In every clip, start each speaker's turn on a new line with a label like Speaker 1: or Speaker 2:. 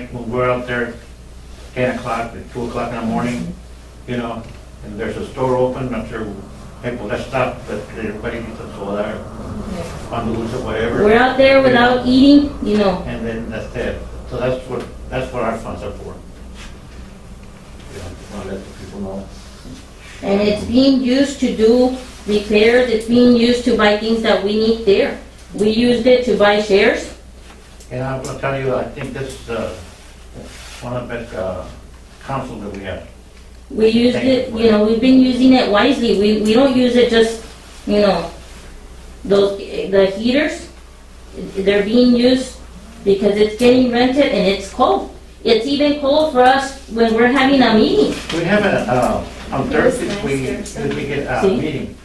Speaker 1: night, when we're out there, ten o'clock, at two o'clock in the morning, you know, and there's a store open, I'm sure, hey, well, let's stop, but everybody gets a soda, or on the loose or whatever.
Speaker 2: We're out there without eating, you know.
Speaker 1: And then that's it. So that's what, that's what our funds are for. Yeah, I'll let the people know.
Speaker 2: And it's being used to do repairs, it's being used to buy things that we need there. We used it to buy shares.
Speaker 1: And I'm gonna tell you, I think this, uh, one of the best, uh, council that we have.
Speaker 2: We used it, you know, we've been using it wisely. We, we don't use it just, you know, those, the heaters, they're being used because it's getting rented and it's cold. It's even cold for us when we're having a meeting.
Speaker 1: We have a, uh, on
Speaker 3: It was
Speaker 1: Thursdays,
Speaker 3: nice
Speaker 1: we,
Speaker 3: here, so-
Speaker 1: we get a
Speaker 2: See?
Speaker 1: uh, meeting.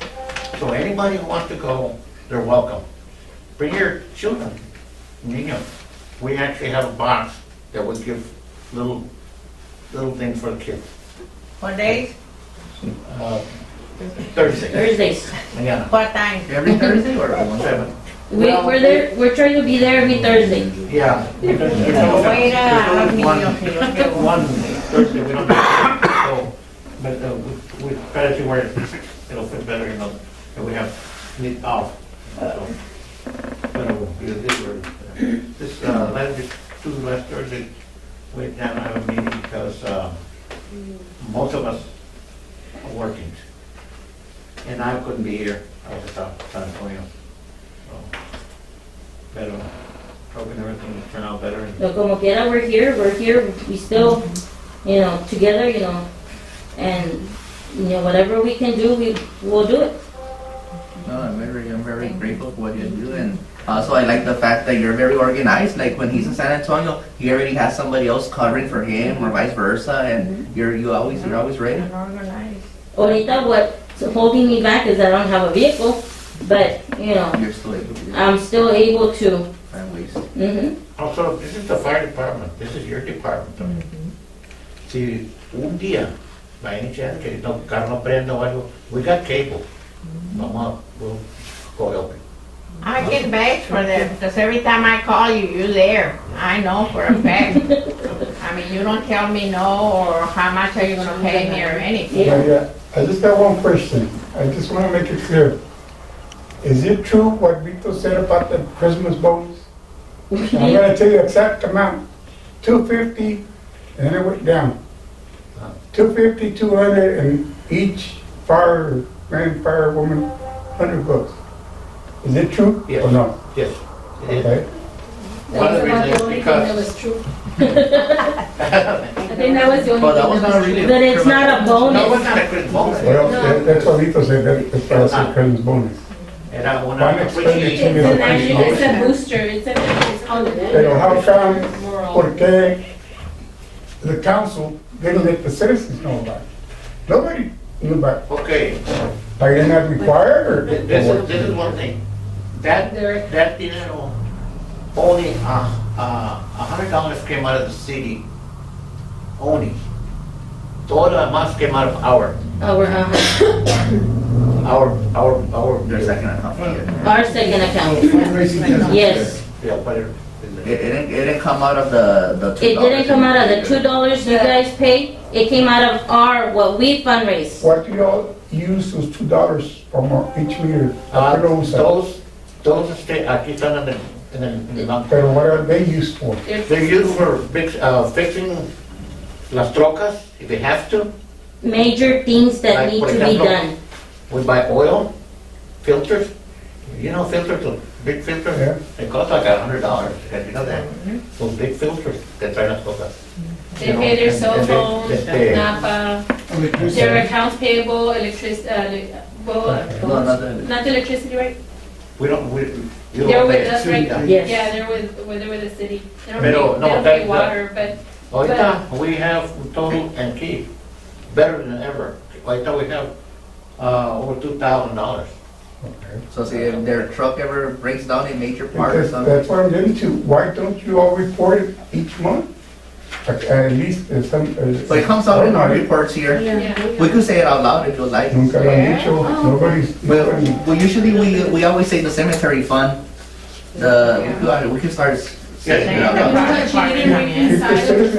Speaker 1: So anybody who wants to go, they're welcome. Bring your children, niños. We actually have a box that we give little, little things for the kids.
Speaker 4: What days?
Speaker 1: Uh, Thursday,
Speaker 2: Thursdays.
Speaker 1: mañana.
Speaker 4: What time?
Speaker 5: Every Thursday or one
Speaker 1: Seven.
Speaker 2: We, we're there, we're trying to be there every Thursday.
Speaker 1: Yeah. There's
Speaker 4: Voy a ir a los
Speaker 1: only
Speaker 4: niños
Speaker 1: one-
Speaker 4: que yo llevo.
Speaker 1: One Thursday, we don't, so, but uh, we- we try to where it'll fit better, you know, and we have it off. so. But it will be this word. This, uh, last, two last Thursday, we didn't have a meeting because, uh, most of us are working. And I couldn't be here, I was at San Antonio. So, But uh, hoping everything will turn out better and
Speaker 2: So como quiera, we're here, we're here, we still, you know, together, you know, and, you know, whatever we can do, we, we'll do it.
Speaker 5: No, I'm very, I'm very grateful for what you do, and also I like the fact that you're very organized. Like when he's in San Antonio, he already has somebody else covering for him, or vice versa,
Speaker 2: Mm-hmm.
Speaker 5: and you're you always you're always ready.
Speaker 4: Unorganized.
Speaker 2: Ahorita what's holding me back is I don't have a vehicle, but, you know,
Speaker 5: You're still able to
Speaker 2: I'm still able to,
Speaker 5: find ways.
Speaker 2: mhm.
Speaker 1: Also, this is the fire department, this is your department también.
Speaker 6: Mm-hmm.
Speaker 1: Si un día, by any chance, que no, carro no prenda o algo, we got cable.
Speaker 6: Mm-hmm.
Speaker 1: Vamos, a- we'll go help you.
Speaker 4: I get bags for them because every time I call you, you're there. I know for a fact. I mean, you don't tell me no or how much are you gonna pay me or anything.
Speaker 2: Yeah.
Speaker 6: Maria, I just have one question. I just want to make it clear. Is it true what Vito said about the Christmas bonus? I'm going to tell you exact amount, 250, and then it went down. 250, 200, and each fire, man, firewoman, 100 bucks. Is it true
Speaker 1: Yes.
Speaker 6: or no?
Speaker 1: Yes. it is.
Speaker 6: Okay.
Speaker 1: One of the
Speaker 3: That was
Speaker 1: reasons
Speaker 3: about the only
Speaker 1: is
Speaker 3: thing that was true. I think that was the only
Speaker 5: Well, that
Speaker 3: thing that
Speaker 5: was not
Speaker 3: was true.
Speaker 5: really.
Speaker 2: But it's not a
Speaker 1: No,
Speaker 2: bonus.
Speaker 1: it's not a good bonus.
Speaker 6: Well, that- that's what Vito said, that- that's why I said Christmas bonus.
Speaker 1: And I want
Speaker 6: One
Speaker 1: to
Speaker 3: It's
Speaker 6: expenditure,
Speaker 1: appreciate,
Speaker 6: you know,
Speaker 3: an annual,
Speaker 6: appreciation.
Speaker 3: it's a booster, it's a, it's all of
Speaker 6: Pero
Speaker 3: that.
Speaker 6: how come,
Speaker 3: We're all-
Speaker 6: por qué the council didn't let the citizens know about it? Nobody knew about it.
Speaker 1: okay,
Speaker 6: Are they not required or?
Speaker 1: th- this is, this is one thing. That,
Speaker 3: There-
Speaker 1: that dinero, only, uh, uh, a hundred dollars came out of the city, only. Todo lo demás came out of our,
Speaker 2: Our, uh,
Speaker 1: our, our, our.
Speaker 5: Your second account. It,
Speaker 2: our second account, yes.
Speaker 1: Yeah, but it-
Speaker 5: it didn't it didn't come out of the the.
Speaker 2: It didn't come out of the two
Speaker 5: $2.
Speaker 2: dollars you guys paid, it came out of our, what we fundraise.
Speaker 6: What do y'all use those two dollars from each meter?
Speaker 1: Ah,
Speaker 6: I don't know,
Speaker 1: Todos, todos este, aquí están en el, en el, en el banco.
Speaker 6: Pero what are they used for?
Speaker 3: There's
Speaker 1: They're used for fix, uh, fixing las trocas, if they have to.
Speaker 2: Major things that
Speaker 1: Like,
Speaker 2: need
Speaker 1: for
Speaker 2: to be
Speaker 1: example,
Speaker 2: done.
Speaker 1: We buy oil, filters, you know filters, those big
Speaker 6: Yeah.
Speaker 1: filters, they cost like a hundred dollars, you know that? Those big filters that traen las trocas.
Speaker 3: They pay their cell
Speaker 1: And they-
Speaker 3: phones, uh,
Speaker 1: they-
Speaker 3: Napa, their accounts payable, electric, uh, le-
Speaker 5: No,
Speaker 3: well,
Speaker 5: not the.
Speaker 3: not the electricity, right?
Speaker 1: We don't, we, you
Speaker 3: They're
Speaker 1: don't
Speaker 3: with
Speaker 1: pay.
Speaker 3: us, right?
Speaker 1: Yeah.
Speaker 2: Yes.
Speaker 3: Yeah, they're with, well, they're with the city. They don't pay,
Speaker 1: Pero,
Speaker 3: they
Speaker 1: no,
Speaker 3: don't pay
Speaker 1: that-
Speaker 3: water, but
Speaker 1: Ahorita, Oh, we have total and key, better than ever. Ahorita we have, uh, over two thousand dollars.
Speaker 6: Okay.
Speaker 5: So see if their truck ever breaks down in major um, part or
Speaker 6: Because
Speaker 5: something.
Speaker 6: that's what I'm getting to. Why don't you all report it each month? At- At least uh, some. uh,
Speaker 5: So it comes out in our
Speaker 6: nobody-
Speaker 5: reports here.
Speaker 3: yeah.
Speaker 5: We could say it out loud if you like.
Speaker 6: Nunca lo han dicho, nobody's.
Speaker 5: Well,
Speaker 6: nobody-
Speaker 5: well, usually we, we always say the cemetery fund, the, we could- we could start s-
Speaker 1: They have the
Speaker 4: But
Speaker 1: private
Speaker 4: she
Speaker 1: party
Speaker 4: didn't
Speaker 1: come
Speaker 4: bring
Speaker 1: in.
Speaker 3: If the
Speaker 4: inside.
Speaker 3: citizens